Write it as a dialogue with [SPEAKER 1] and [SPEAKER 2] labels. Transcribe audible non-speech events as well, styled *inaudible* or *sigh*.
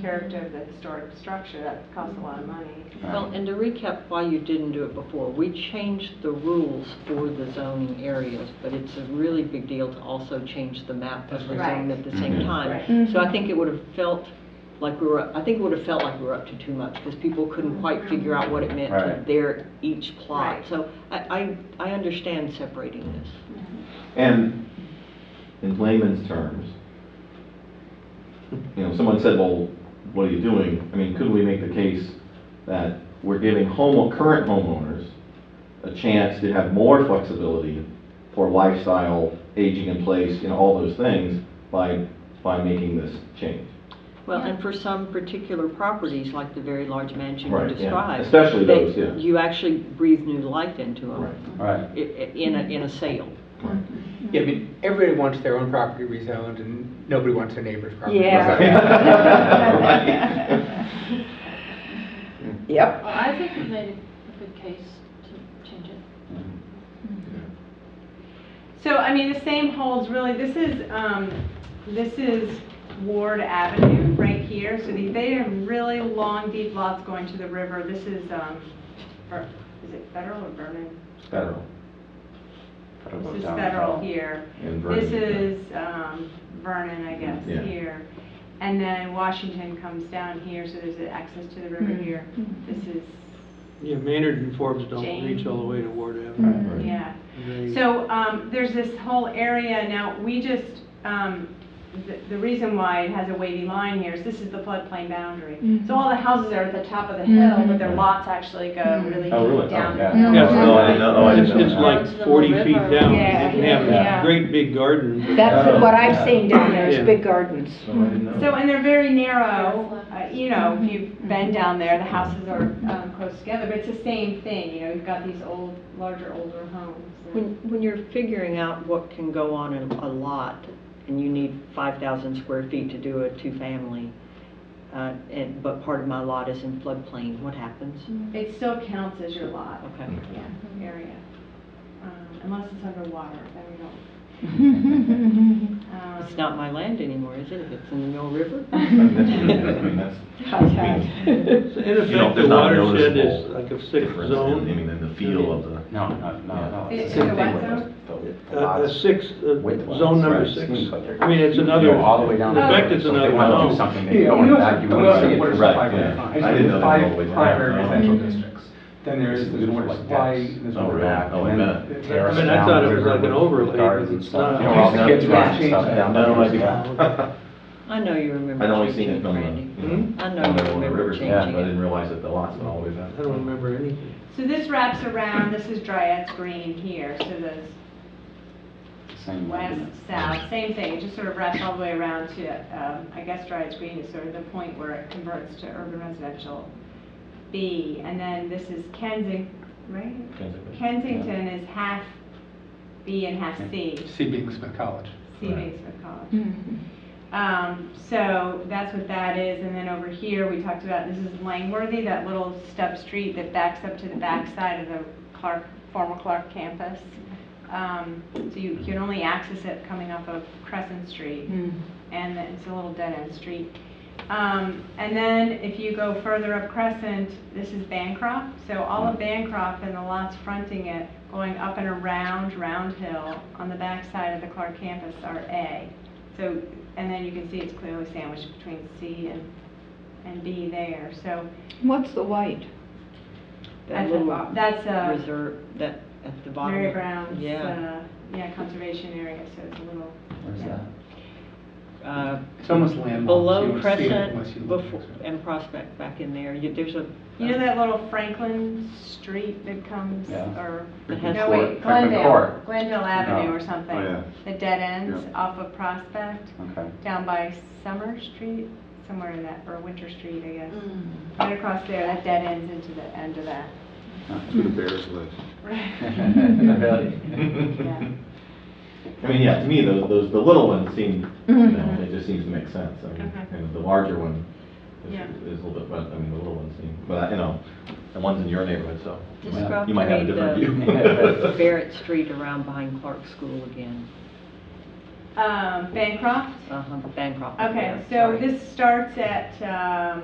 [SPEAKER 1] character of the historic structure, that costs a lot of money.
[SPEAKER 2] Well, and to recap why you didn't do it before, we changed the rules for the zoning areas, but it's a really big deal to also change the map of the
[SPEAKER 1] Right.
[SPEAKER 2] zone at the same
[SPEAKER 3] Mhm.
[SPEAKER 2] time.
[SPEAKER 1] Right.
[SPEAKER 2] So I think it would have felt like we were, I think it would have felt like we were up to too much, because people couldn't quite figure out what it meant to
[SPEAKER 3] Right.
[SPEAKER 2] their each plot.
[SPEAKER 1] Right.
[SPEAKER 2] So I, I, I understand separating this.
[SPEAKER 3] And in layman's terms, you know, someone said, well, what are you doing? I mean, could we make the case that we're giving home, current homeowners a chance to have more flexibility for lifestyle, aging in place, you know, all those things by, by making this change?
[SPEAKER 2] Well, and for some particular properties, like the very large mansion you
[SPEAKER 3] Right, yeah.
[SPEAKER 2] described.
[SPEAKER 3] Especially
[SPEAKER 2] that
[SPEAKER 3] those, yeah.
[SPEAKER 2] You actually breathe new life into them.
[SPEAKER 3] Right.
[SPEAKER 4] Right.
[SPEAKER 2] i- i- In a, in a sale.
[SPEAKER 5] Yeah, I mean, everybody wants their own property rezoned, and nobody wants their neighbor's property
[SPEAKER 1] Yeah.
[SPEAKER 5] rezoned.
[SPEAKER 6] *laughs*
[SPEAKER 1] *laughs*
[SPEAKER 3] Right.
[SPEAKER 7] Yep.
[SPEAKER 8] Well, I think we made a good case to change it.
[SPEAKER 1] So, I mean, the same holds really, this is, um, this is Ward Avenue right here, so they, they have really long, deep lots going to the river. This is, um, or, is it federal or Vernon?
[SPEAKER 3] Federal.
[SPEAKER 1] This is federal here.
[SPEAKER 3] And
[SPEAKER 1] This
[SPEAKER 3] Vernon, yeah.
[SPEAKER 1] is, um, Vernon, I guess,
[SPEAKER 3] Yeah.
[SPEAKER 1] here. And then Washington comes down here, so there's an access to the river
[SPEAKER 3] Mm-hmm.
[SPEAKER 1] here. This is
[SPEAKER 6] Yeah, Maynard and Forbes don't
[SPEAKER 1] Jane.
[SPEAKER 6] reach all the way to Ward Avenue.
[SPEAKER 3] Right, right.
[SPEAKER 1] Yeah,
[SPEAKER 6] They-
[SPEAKER 1] so, um, there's this whole area now, we just, um, the, the reason why it has a wavy line here is this is the floodplain boundary. So all the houses are at the top of the hill, but their lots actually go really
[SPEAKER 3] Oh, really? Oh,
[SPEAKER 1] deep down.
[SPEAKER 3] yeah.
[SPEAKER 1] the hill.
[SPEAKER 6] Yeah,
[SPEAKER 3] No, I didn't know-
[SPEAKER 4] Oh,
[SPEAKER 3] no, I
[SPEAKER 6] It's
[SPEAKER 3] didn't know
[SPEAKER 6] it's
[SPEAKER 3] that.
[SPEAKER 8] Down to the
[SPEAKER 6] like
[SPEAKER 8] little
[SPEAKER 6] 40 feet
[SPEAKER 8] river.
[SPEAKER 6] down,
[SPEAKER 7] Yeah,
[SPEAKER 6] and they have
[SPEAKER 7] yeah.
[SPEAKER 6] a great big garden.
[SPEAKER 7] That's
[SPEAKER 3] Oh,
[SPEAKER 7] what
[SPEAKER 3] yeah.
[SPEAKER 7] I've seen down there,
[SPEAKER 6] Yeah.
[SPEAKER 7] is big gardens.
[SPEAKER 3] No, Oh, I didn't know. *laughs*
[SPEAKER 1] So, and they're very narrow, uh, you know, if you've been down there, the houses are, um, close together, but it's the same thing, you know, you've got these old, larger, older homes.
[SPEAKER 2] When, when you're figuring out what can go on in a lot, and you need five thousand square feet to do a two-family, uh, and, but part of my lot is in floodplain, what happens?
[SPEAKER 1] It still counts as your lot.
[SPEAKER 2] Okay.
[SPEAKER 1] Yeah, area. Um, Unless it's underwater, then we don't. Um,
[SPEAKER 2] It's not my land anymore, is it, if it's in the Mill River?
[SPEAKER 3] I mean, that's-
[SPEAKER 2] *laughs*
[SPEAKER 6] So In
[SPEAKER 3] You know,
[SPEAKER 6] effect, the
[SPEAKER 3] there's not
[SPEAKER 6] watershed is
[SPEAKER 3] noticeable
[SPEAKER 6] like a sixth
[SPEAKER 3] difference in- I
[SPEAKER 6] zone,
[SPEAKER 3] mean, in the feel of the.
[SPEAKER 4] *laughs* No, no, no, no.
[SPEAKER 1] It- it's
[SPEAKER 4] it's the same
[SPEAKER 1] a
[SPEAKER 4] thing
[SPEAKER 1] what
[SPEAKER 4] with those-
[SPEAKER 1] zone?
[SPEAKER 6] a a sixth, uh,
[SPEAKER 4] Wetlands,
[SPEAKER 6] zone number
[SPEAKER 4] right.
[SPEAKER 6] six.
[SPEAKER 4] Swing
[SPEAKER 6] I mean, it's another,
[SPEAKER 4] You go all the way down.
[SPEAKER 6] in effect,
[SPEAKER 4] there.
[SPEAKER 6] it's
[SPEAKER 4] So if they
[SPEAKER 6] another
[SPEAKER 4] wanna do
[SPEAKER 6] zone.
[SPEAKER 4] Something, they go in back, you
[SPEAKER 3] also
[SPEAKER 4] want to see
[SPEAKER 3] get
[SPEAKER 4] it.
[SPEAKER 3] what
[SPEAKER 4] from-
[SPEAKER 3] are some five right, yeah. I didn't know that all the way
[SPEAKER 9] Five
[SPEAKER 3] down.
[SPEAKER 9] primary
[SPEAKER 3] Oh.
[SPEAKER 9] residential districts. Then there's
[SPEAKER 4] It's
[SPEAKER 9] the
[SPEAKER 4] beautiful
[SPEAKER 9] water
[SPEAKER 4] like
[SPEAKER 9] supply,
[SPEAKER 4] this.
[SPEAKER 9] there's
[SPEAKER 3] Oh,
[SPEAKER 9] water
[SPEAKER 3] really?
[SPEAKER 9] back.
[SPEAKER 3] Oh, I
[SPEAKER 9] and then
[SPEAKER 3] bet.
[SPEAKER 9] the
[SPEAKER 4] Terrace
[SPEAKER 6] I mean, I
[SPEAKER 4] down
[SPEAKER 6] thought
[SPEAKER 4] the
[SPEAKER 6] it was
[SPEAKER 4] river
[SPEAKER 6] like an
[SPEAKER 4] with
[SPEAKER 6] overlay, but
[SPEAKER 4] gardens
[SPEAKER 6] it's
[SPEAKER 4] and stuff.
[SPEAKER 6] not.
[SPEAKER 4] You know, all
[SPEAKER 9] Used to
[SPEAKER 4] the
[SPEAKER 9] get
[SPEAKER 4] rocks
[SPEAKER 9] rocks
[SPEAKER 4] stuff
[SPEAKER 9] down
[SPEAKER 4] down
[SPEAKER 3] there.
[SPEAKER 4] there.
[SPEAKER 3] No, I do.
[SPEAKER 6] *laughs*
[SPEAKER 2] I know you remember
[SPEAKER 3] I'd only
[SPEAKER 2] changing
[SPEAKER 3] seen
[SPEAKER 2] it,
[SPEAKER 3] it on
[SPEAKER 2] Brandy.
[SPEAKER 3] the, you know,
[SPEAKER 2] I know
[SPEAKER 3] on
[SPEAKER 2] you
[SPEAKER 3] the on the
[SPEAKER 2] remember
[SPEAKER 3] river,
[SPEAKER 2] changing
[SPEAKER 3] yeah, but I
[SPEAKER 2] it.
[SPEAKER 3] didn't realize that the lots went all the way back.
[SPEAKER 6] I don't remember anything.
[SPEAKER 1] So this wraps around, this is Dryad's Green here, so the
[SPEAKER 4] Same way,
[SPEAKER 1] west,
[SPEAKER 4] isn't it?
[SPEAKER 1] south, same thing, it just sort of wraps all the way around to, um, I guess Dryad's Green is sort of the point where it converts to urban residential B. And then this is Kensington, right?
[SPEAKER 3] Kensington.
[SPEAKER 1] Kensington is half B and half C,
[SPEAKER 5] See being Smith College.
[SPEAKER 1] C
[SPEAKER 3] Right.
[SPEAKER 1] makes for college. Um, so that's what that is, and then over here, we talked about, this is Langworthy, that little stub street that backs up to the backside of the Clark, former Clark campus. Um, so you can only access it coming off of Crescent Street,
[SPEAKER 7] Mm.
[SPEAKER 1] and it's a little dead-end street. Um, and then if you go further up Crescent, this is Bancroft, so all
[SPEAKER 2] Hmm.
[SPEAKER 1] of Bancroft and the lots fronting it, going up and around Round Hill on the backside of the Clark campus are A. So, and then you can see it's clearly sandwiched between C and, and B there, so
[SPEAKER 7] What's the white?
[SPEAKER 2] That
[SPEAKER 1] that's
[SPEAKER 2] little
[SPEAKER 1] a, that's a
[SPEAKER 2] reserve, that, at the bottom.
[SPEAKER 1] Mary
[SPEAKER 2] of-
[SPEAKER 1] Brown's,
[SPEAKER 2] Yeah.
[SPEAKER 1] uh, yeah, conservation area, so it's a little,
[SPEAKER 4] Where's
[SPEAKER 1] yeah.
[SPEAKER 4] that?
[SPEAKER 2] Uh,
[SPEAKER 5] It's
[SPEAKER 6] Hmm.
[SPEAKER 5] almost landlocked. You
[SPEAKER 2] Below
[SPEAKER 5] wouldn't see it unless you
[SPEAKER 2] Crescent,
[SPEAKER 5] look next
[SPEAKER 2] before,
[SPEAKER 5] to it.
[SPEAKER 2] and Prospect back in there, you, there's a.
[SPEAKER 1] You know that little Franklin Street that comes,
[SPEAKER 4] Yeah.
[SPEAKER 1] or,
[SPEAKER 2] It has
[SPEAKER 1] no,
[SPEAKER 4] Court,
[SPEAKER 1] wait,
[SPEAKER 4] Franklin
[SPEAKER 1] Glendale,
[SPEAKER 4] Court.
[SPEAKER 1] Glendale Avenue
[SPEAKER 4] No.
[SPEAKER 1] or something?
[SPEAKER 4] Oh, yeah.
[SPEAKER 1] The dead ends off of Prospect,
[SPEAKER 6] *laughs*
[SPEAKER 4] Okay.
[SPEAKER 1] down by Summer Street, somewhere in that, or Winter Street, I guess.
[SPEAKER 8] Mm.
[SPEAKER 1] Right across there, that dead ends into the end of that.
[SPEAKER 9] Two
[SPEAKER 4] *laughs*
[SPEAKER 6] *laughs*
[SPEAKER 9] bears live.
[SPEAKER 1] Yeah.
[SPEAKER 3] *laughs* I mean, yeah, to me, those, those, the little ones seem, you know, it just seems to make sense. I mean,
[SPEAKER 1] Okay.
[SPEAKER 3] and the larger one is,
[SPEAKER 1] Yeah.
[SPEAKER 3] is a little bit, but, I mean, the little ones seem, but, you know, the ones in your neighborhood, so. you might-
[SPEAKER 2] Describe
[SPEAKER 3] You might have a
[SPEAKER 2] to me
[SPEAKER 3] different
[SPEAKER 2] *laughs* the-
[SPEAKER 3] view.
[SPEAKER 2] Barrett Street around behind Clark School again.
[SPEAKER 1] *laughs* Um, Bancroft?
[SPEAKER 2] Uh-huh, Bancroft.
[SPEAKER 1] Okay,
[SPEAKER 2] yeah,
[SPEAKER 1] so
[SPEAKER 4] Oh.
[SPEAKER 2] Uh, sorry.
[SPEAKER 1] this starts at, um,